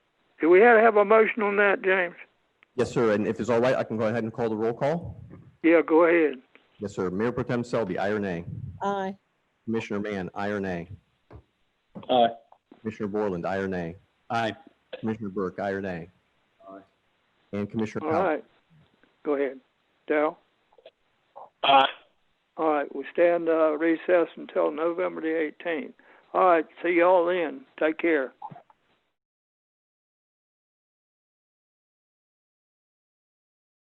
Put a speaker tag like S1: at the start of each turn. S1: Do we have to have a motion on that, James?
S2: Yes, sir. And if it's all right, I can go ahead and call the roll call.
S1: Yeah, go ahead.
S2: Yes, sir. Mayor Pro Tem Selby, aye or nay?
S3: Aye.
S2: Commissioner Mann, aye or nay?
S4: Aye.
S2: Commissioner Borland, aye or nay?
S4: Aye.
S2: Commissioner Burke, aye or nay?
S4: Aye.
S2: And Commissioner
S1: All
S2: Powell.
S1: right. Go ahead. Dal?
S4: Aye.
S1: All right, we stand uh, recess until November the eighteenth. All right, see y'all then. Take care.